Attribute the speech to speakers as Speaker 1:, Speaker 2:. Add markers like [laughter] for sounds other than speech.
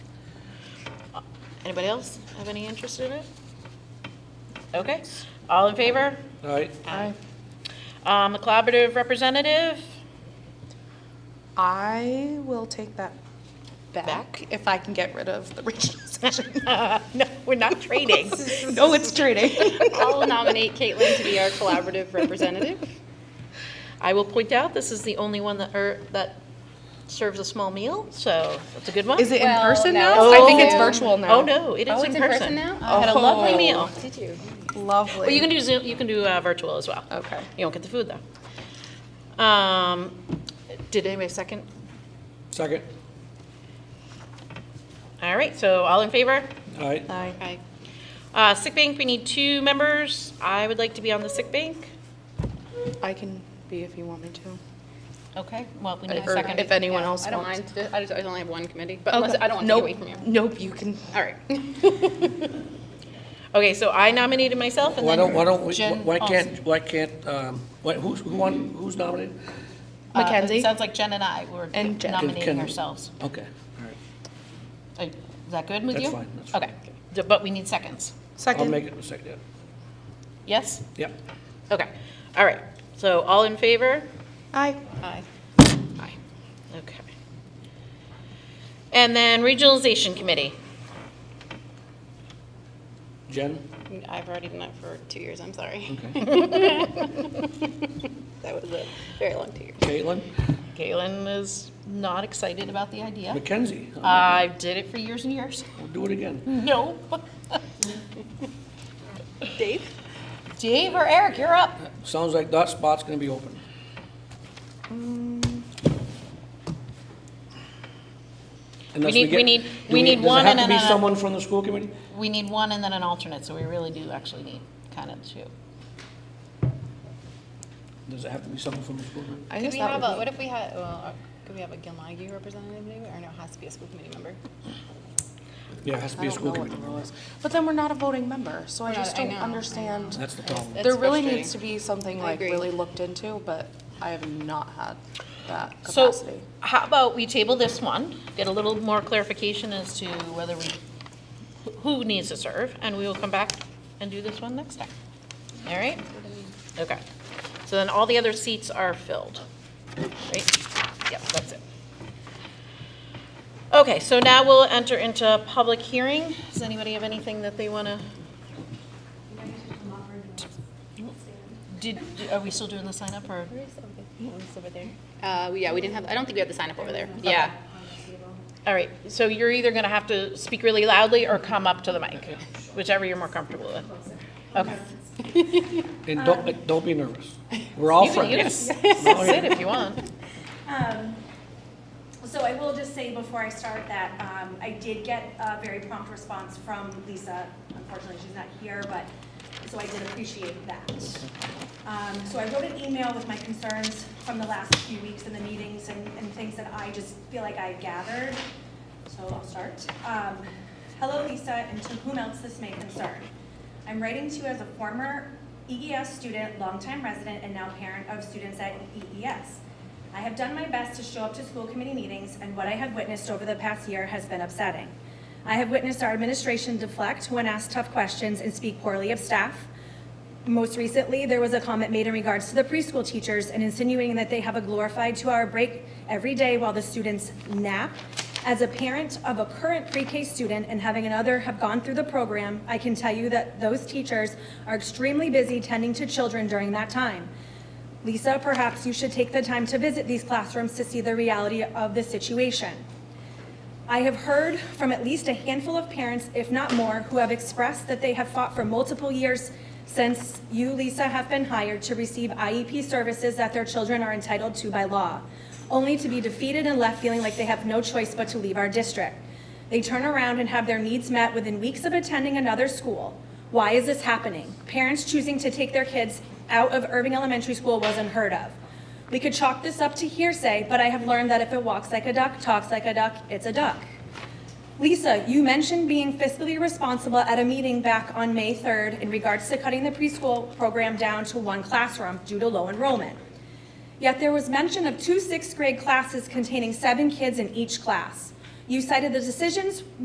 Speaker 1: Anybody else have any interest in it? Okay, all in favor?
Speaker 2: All right,
Speaker 1: Aye. Um, the collaborative [laughs] representative,
Speaker 3: I will take that
Speaker 1: Back?
Speaker 3: back if I can get rid of the regional
Speaker 4: [laughs]
Speaker 3: section.
Speaker 1: no, we're not trading.
Speaker 3: No, it's
Speaker 4: [laughs]
Speaker 3: trading.
Speaker 4: I'll nominate Caitlin to be our collaborative representative.
Speaker 1: I will point out, this is the only one that, er, that serves a small meal, so that's a good one.
Speaker 3: Is it in
Speaker 4: Well,
Speaker 3: person
Speaker 4: no,
Speaker 3: now? I think it's
Speaker 4: it's Zoom.
Speaker 3: virtual now.
Speaker 1: Oh, no, it is in person.
Speaker 4: now?
Speaker 1: I had a lovely
Speaker 3: Oh.
Speaker 1: meal.
Speaker 4: Did you?
Speaker 3: Lovely.
Speaker 1: Well, you can do Zoom, you can do uh, virtual as well.
Speaker 3: Okay.
Speaker 1: You don't get the food, though. Um, Did anybody second?
Speaker 2: second,
Speaker 1: All right, so all in favor?
Speaker 2: all right,
Speaker 3: Aye.
Speaker 4: Aye.
Speaker 1: Uh, Sick bank, we need two members. I would like to be on the sick bank.
Speaker 3: I can be if you want me to.
Speaker 1: Okay, well, we
Speaker 2: Uh,
Speaker 3: need
Speaker 1: need
Speaker 3: a
Speaker 1: a
Speaker 3: Or
Speaker 1: second.
Speaker 3: second. if anyone
Speaker 4: Yeah,
Speaker 3: else
Speaker 4: I don't
Speaker 3: wants.
Speaker 4: mind, I just, I only have one committee, but unless, I don't want to
Speaker 3: Nope.
Speaker 4: take away from you.
Speaker 3: Nope, you can.
Speaker 4: All right.
Speaker 1: Okay, so I nominated myself and
Speaker 2: why don't, why
Speaker 1: then
Speaker 2: don't, we-
Speaker 1: Jen
Speaker 2: why
Speaker 1: also.
Speaker 2: can't, why can't, um, why, who's, who won, who's nominated?
Speaker 1: Uh,
Speaker 4: Uh,
Speaker 3: Mackenzie?
Speaker 1: It sounds like Jen and I were
Speaker 3: And Jen.
Speaker 1: nominating
Speaker 2: Can-
Speaker 1: ourselves.
Speaker 2: Okay, all right,
Speaker 1: Are- Is that good with
Speaker 2: That's
Speaker 1: you?
Speaker 2: fine, that's fine.
Speaker 1: Okay, D- but we need seconds.
Speaker 2: I'll
Speaker 3: Second.
Speaker 2: make it in a second,
Speaker 1: Yes?
Speaker 2: yeah. Yep.
Speaker 1: Okay, all right. So all in favor?
Speaker 3: Aye.
Speaker 4: Aye.
Speaker 1: Aye. Okay. And then Regionalization Committee.
Speaker 2: Jen,
Speaker 4: I've already done that for two years, I'm sorry.
Speaker 2: okay,
Speaker 4: [laughs] That was a very long two years.
Speaker 2: Caitlin,
Speaker 1: Galen is not excited about the idea.
Speaker 2: Mackenzie, uh,
Speaker 1: I did it for years and years. [laughs]
Speaker 2: we'll do it again.
Speaker 1: No. [laughs]
Speaker 4: Dave?
Speaker 1: Dave or Eric, you're up.
Speaker 2: Sounds like that spot's gonna be open. Unless
Speaker 1: need- we
Speaker 2: get-
Speaker 1: need-
Speaker 2: do
Speaker 1: we need one and
Speaker 2: Does it have to
Speaker 1: then
Speaker 2: be
Speaker 1: a-
Speaker 2: someone from the school committee?
Speaker 1: We need one and then an alternate, so we really do actually need kind of two.
Speaker 2: Does it have to be someone from the school committee?
Speaker 3: I
Speaker 4: Could
Speaker 3: guess
Speaker 4: we
Speaker 3: that
Speaker 4: have a,
Speaker 3: would
Speaker 4: what
Speaker 3: be.
Speaker 4: if we had, well, uh, could we have a Gilmagee representative maybe? Or no, it has to be a school committee member.
Speaker 2: Yeah, it has to
Speaker 3: I
Speaker 2: be a
Speaker 3: don't know
Speaker 2: school
Speaker 3: what the
Speaker 2: committee.
Speaker 3: rule is. But then we're not a voting member, so I
Speaker 4: We're not-
Speaker 3: just
Speaker 4: I
Speaker 3: don't
Speaker 4: know, I
Speaker 3: understand.
Speaker 2: That's the problem.
Speaker 4: That's
Speaker 3: There really
Speaker 4: frustrating.
Speaker 3: needs to be something
Speaker 4: I
Speaker 3: like
Speaker 4: agree.
Speaker 3: really looked into, but I have not had that
Speaker 1: So
Speaker 3: capacity.
Speaker 1: how about we table this one, get a little more clarification as to whether we, who needs to serve, and we will come back and do this one next time. All right? Okay. So then all the other seats are filled, right? Yep, that's it. Okay, so now we'll enter into public hearing. Does anybody have anything that they want to? Did, are we still doing the sign up or?
Speaker 4: Uh, we- yeah, we didn't have, I don't think we had the sign up over there. Yeah.
Speaker 1: All right, so you're either going to have to speak really loudly or come up to the mic, whichever you're more comfortable with. Okay.
Speaker 2: And don't, don't be nervous. We're all
Speaker 1: You can- you can
Speaker 2: friends.
Speaker 1: [laughs] Sit if you want.
Speaker 5: Um, So I will just say before I start that um, I did get a very prompt response from Lisa. Unfortunately, she's not here, but, so I did appreciate that. Um, So I wrote an email with my concerns from the last few weeks in the meetings and, and things that I just feel like I gathered. So I'll start. Um, Hello, Lisa, and to whom else this may concern. I'm writing to you as a former EES student, longtime resident, and now parent of students at EES. I have done my best to show up to school committee meetings, and what I have witnessed over the past year has been upsetting. I have witnessed our administration deflect when asked tough questions and speak poorly of staff. Most recently, there was a comment made in regards to the preschool teachers and insinuating that they have a glorified two-hour break every day while the students nap. As a parent of a current pre-K student and having another have gone through the program, I can tell you that those teachers are extremely busy tending to children during that time. Lisa, perhaps you should take the time to visit these classrooms to see the reality of the situation. I have heard from at least a handful of parents, if not more, who have expressed that they have fought for multiple years since you, Lisa, have been hired to receive IEP services that their children are entitled to by law, only to be defeated and left feeling like they have no choice but to leave our district. They turn around and have their needs met within weeks of attending another school. Why is this happening? Parents choosing to take their kids out of Irving Elementary School was unheard of. We could chalk this up to hearsay, but I have learned that if it walks like a duck, talks like a duck, it's a duck. Lisa, you mentioned being fiscally responsible at a meeting back on May 3rd in regards to cutting the preschool program down to one classroom due to low enrollment. Yet there was mention of two sixth grade classes containing seven kids in each class. You cited the decisions